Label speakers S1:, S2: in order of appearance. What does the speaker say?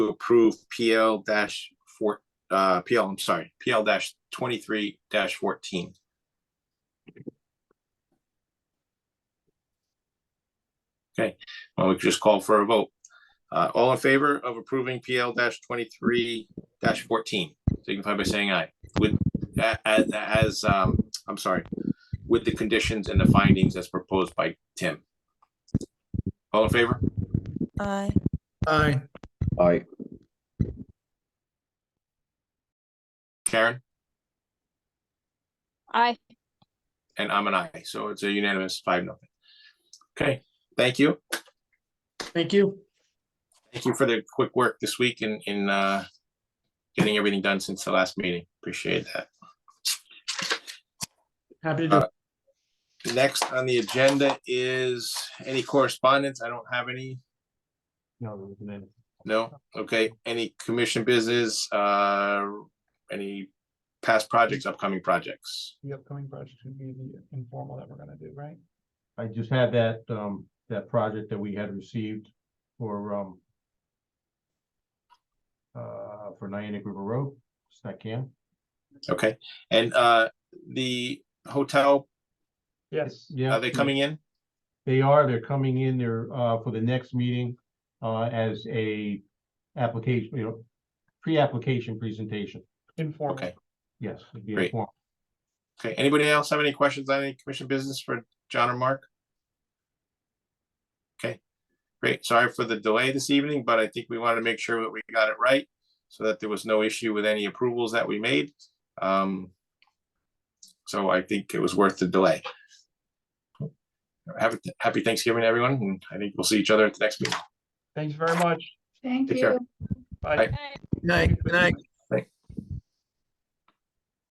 S1: approve PL dash four, uh, PL, I'm sorry, PL dash twenty-three dash fourteen. Okay, well, we could just call for a vote. Uh, all in favor of approving PL dash twenty-three dash fourteen, signify by saying aye. With, a- as, as, um, I'm sorry, with the conditions and the findings as proposed by Tim. All in favor?
S2: Aye.
S3: Aye.
S4: Aye.
S1: Karen?
S5: Aye.
S1: And I'm an aye, so it's a unanimous five, nothing. Okay, thank you.
S3: Thank you.
S1: Thank you for the quick work this week in, in, uh, getting everything done since the last meeting. Appreciate that.
S3: Happy to
S6: Uh,
S3: do. it.
S1: Next on the agenda is any correspondence? I don't have any. No, okay, any commission business, uh, any past projects, upcoming projects?
S7: the upcoming project would be the informal that we're gonna do, right?
S6: I just had that, um, that project that we had received for, um. Uh, for Niantic River Road, Snackham.
S1: Okay, and, uh, the hotel,
S7: Yes.
S6: Yeah.
S1: are they coming in?
S6: They are, they're coming in there, uh, for the next meeting, uh, as a application, you know, pre-application presentation.
S7: Informal.
S1: Okay,
S6: Yes. it'd be
S1: Great.
S6: informal.
S1: okay. Anybody else have any questions on any commission business for John or Mark? Okay, great. Sorry for the delay this evening, but I think we wanted to make sure that we got it right so that there was no issue with any approvals that we made. Um, so I think it was worth the delay. Have, a- happy Thanksgiving, everyone, and I think we'll see each other at the next meeting.
S7: Thanks very much.
S8: Thank
S1: Take care.
S8: you.
S1: Bye.
S3: Night, good night.